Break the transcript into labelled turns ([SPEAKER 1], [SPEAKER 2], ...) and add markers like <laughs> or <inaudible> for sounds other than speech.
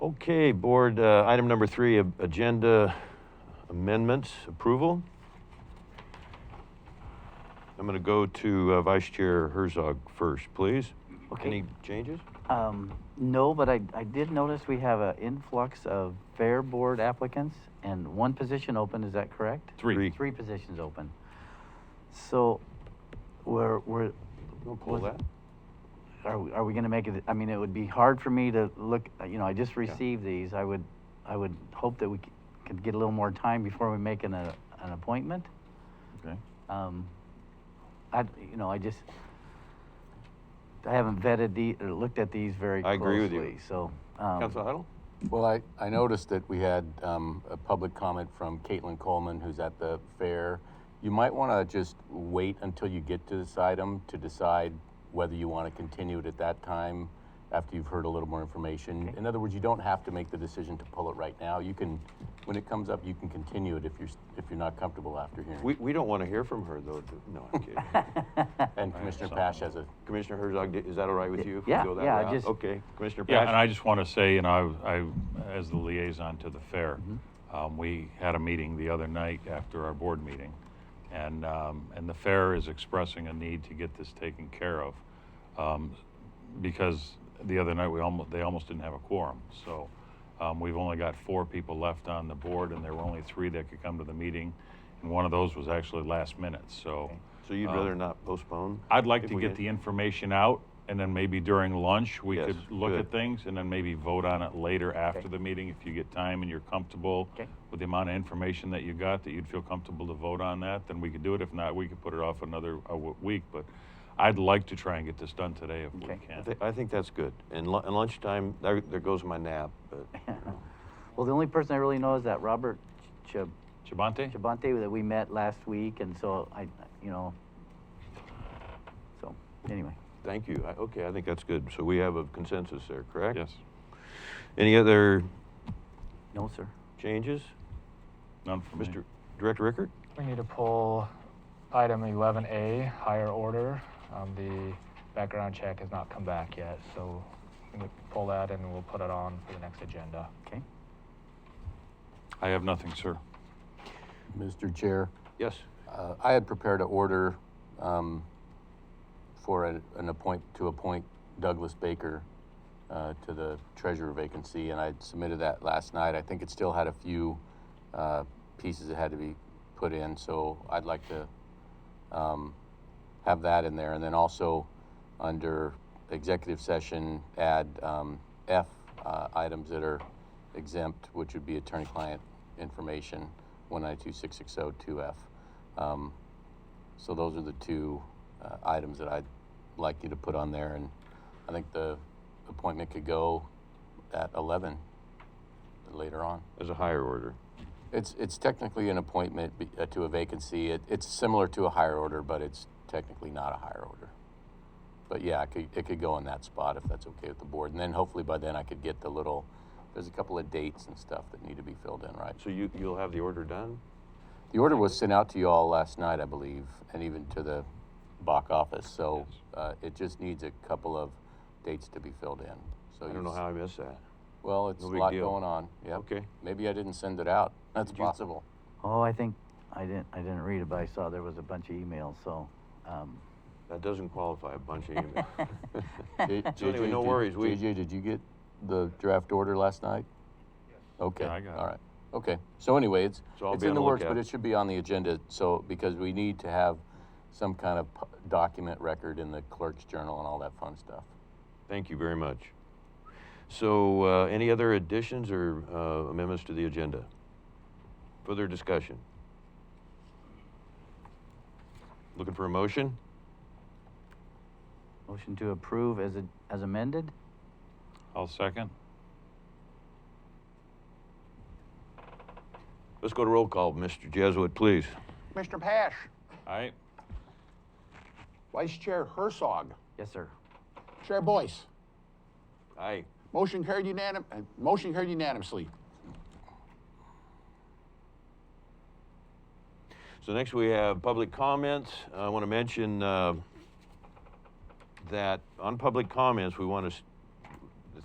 [SPEAKER 1] Okay, board, uh, item number three, a- agenda amendments approval. I'm going to go to uh, Vice Chair Herzog first, please.
[SPEAKER 2] Okay.
[SPEAKER 1] Any changes?
[SPEAKER 2] Um, no, but I, I did notice we have an influx of fair board applicants and one position open, is that correct?
[SPEAKER 3] Three.
[SPEAKER 1] Three.
[SPEAKER 2] Three positions open. So, we're, we're,
[SPEAKER 1] Don't pull
[SPEAKER 2] Was-
[SPEAKER 1] that.
[SPEAKER 2] are, we- are we gonna make it, I mean, it would be hard for me to look, uh, you know, I just
[SPEAKER 1] Yeah.
[SPEAKER 2] received these, I would, I would hope that we c- could get a little more time before we make an, uh, an appointment.
[SPEAKER 3] Okay.
[SPEAKER 2] Um, I, you know, I just, I haven't vetted the, or looked at these very
[SPEAKER 1] I
[SPEAKER 2] closely.
[SPEAKER 1] agree with you.
[SPEAKER 2] So, um.
[SPEAKER 1] Council Huddle?
[SPEAKER 4] Well, I, I noticed that we had um, a public comment from Caitlin Coleman, who's at the fair. You might want to just wait until you get to this item to decide whether you want to continue it at that time after you've heard a little more information. In other words, you don't have to make the decision to pull it right now. You can, when it comes up, you can continue it if you're, s- if you're not comfortable after hearing.
[SPEAKER 1] We, we don't want to hear from her, though. do- No, I'm <laughs> kidding.
[SPEAKER 4] and Commissioner Pash has a
[SPEAKER 1] Commissioner Herzog, di- is that all right with you? if we
[SPEAKER 2] Yeah,
[SPEAKER 1] go that
[SPEAKER 2] yeah, I
[SPEAKER 1] route?
[SPEAKER 2] just-
[SPEAKER 1] Okay, Commissioner
[SPEAKER 3] Yeah, and I
[SPEAKER 1] Pash?
[SPEAKER 3] just want to say, you know, I, I, as the liaison to the fair, um, we had a meeting the other night after our board meeting. And, um, and the fair is expressing a need to get this taken care of. Um, because the other night, we almost, they almost didn't have a quorum. So, um, we've only got four people left on the board and there were only three that could come to the meeting. And one of those was actually last minute, so.
[SPEAKER 1] So you'd
[SPEAKER 3] um,
[SPEAKER 1] rather not postpone?
[SPEAKER 3] I'd like
[SPEAKER 1] if
[SPEAKER 3] to
[SPEAKER 1] we
[SPEAKER 3] get
[SPEAKER 1] can?
[SPEAKER 3] the information out, and then maybe during lunch, we
[SPEAKER 1] Yes,
[SPEAKER 3] could look
[SPEAKER 1] good.
[SPEAKER 3] at things, and then maybe vote on it later after the meeting, if you get time and you're comfortable
[SPEAKER 2] Okay.
[SPEAKER 3] with the amount of information that you got, that you'd feel comfortable to vote on that, then we could do it. If not, we could put it off another uh, w- week, but I'd like to try and get this done today if we
[SPEAKER 2] Okay.
[SPEAKER 1] I
[SPEAKER 3] can.
[SPEAKER 1] thi- I think that's good. And lu- and lunchtime, there, there goes my nap, but
[SPEAKER 2] <laughs> Well, the only person I really know is that Robert Ch-
[SPEAKER 3] Chabante?
[SPEAKER 2] Chabante that we met last week, and so I, you know, so, anyway.
[SPEAKER 1] thank you. I- Okay, I think that's good. So we have a consensus there, correct?
[SPEAKER 3] Yes.
[SPEAKER 1] Any other
[SPEAKER 2] No, sir.
[SPEAKER 1] changes?
[SPEAKER 3] None for me.
[SPEAKER 1] Mr. Director Rickard?
[SPEAKER 5] We need to pull item 11A, higher order. Um, the background check has not come back yet, so we need to pull that and we'll put it on for the next agenda.
[SPEAKER 2] Okay.
[SPEAKER 3] I have nothing, sir.
[SPEAKER 4] Mr. Chair.
[SPEAKER 1] Yes.
[SPEAKER 4] Uh, I had prepared an order um, for a- an appoint, to appoint Douglas Baker uh, to the treasurer vacancy, and I submitted that last night. I think it still had a few uh, pieces that had to be put in, so I'd like to um, have that in there. And then also, under executive session, add um, F, uh, items that are exempt, which would be attorney-client information, 1926602F. Um, So those are the two uh, items that I'd like you to put on there, and I think the appointment could go at 11 later on.
[SPEAKER 1] As a higher order.
[SPEAKER 4] It's, it's technically an appointment be- uh, to a vacancy. It, it's similar to a higher order, but it's technically not a higher order. But yeah, it could, it could go in that spot if that's okay with the board. And then hopefully by then I could get the little, there's a couple of dates and stuff that need to be filled in, right?
[SPEAKER 1] So you, you'll have the order done?
[SPEAKER 4] The order was sent out to you all last night, I believe, and even to the Bach office. So uh, it just needs a couple of dates to be filled in. So
[SPEAKER 1] I
[SPEAKER 4] you
[SPEAKER 1] don't know
[SPEAKER 4] s-
[SPEAKER 1] how I missed that.
[SPEAKER 4] Well, it's
[SPEAKER 1] No
[SPEAKER 4] a
[SPEAKER 1] big
[SPEAKER 4] lot
[SPEAKER 1] deal.
[SPEAKER 4] going on. Yep.
[SPEAKER 1] Okay.
[SPEAKER 4] Maybe I didn't send it out. That's possible.
[SPEAKER 2] Oh, I think, I didn't, I didn't read it, but I saw there was a bunch of emails, so, um,
[SPEAKER 1] That doesn't qualify a bunch of emails. <laughs>
[SPEAKER 4] <laughs> J-
[SPEAKER 1] So anyway,
[SPEAKER 4] JJ,
[SPEAKER 1] no
[SPEAKER 4] did-
[SPEAKER 1] worries, we-
[SPEAKER 4] JJ, did you get the draft order last night? Okay.
[SPEAKER 3] Yeah, I got it.
[SPEAKER 4] All right. Okay. So anyway, it's
[SPEAKER 1] So I'll
[SPEAKER 4] it's
[SPEAKER 1] be
[SPEAKER 4] in
[SPEAKER 1] on
[SPEAKER 4] the
[SPEAKER 1] the
[SPEAKER 4] works, but
[SPEAKER 1] lookout.
[SPEAKER 4] it should be on the agenda. So because we need to have some kind of pu- document record in the clerk's journal and all that fun stuff.
[SPEAKER 1] Thank you very much. So uh, any other additions or uh, amendments to the agenda? Further discussion? Looking for a motion?
[SPEAKER 2] motion to approve as, a- as amended?
[SPEAKER 3] I'll second.
[SPEAKER 1] Let's go to roll call. Mr. Jesuit, please.
[SPEAKER 6] Mr. Pash,
[SPEAKER 3] Aye.
[SPEAKER 6] Vice Chair Herzog,
[SPEAKER 2] Yes, sir.
[SPEAKER 6] Chair Boyce.
[SPEAKER 1] Aye.
[SPEAKER 6] Motion carried unanim, uh, motion carried unanimously.
[SPEAKER 1] So next we have public comments. I want to mention uh, that on public comments, we want to s-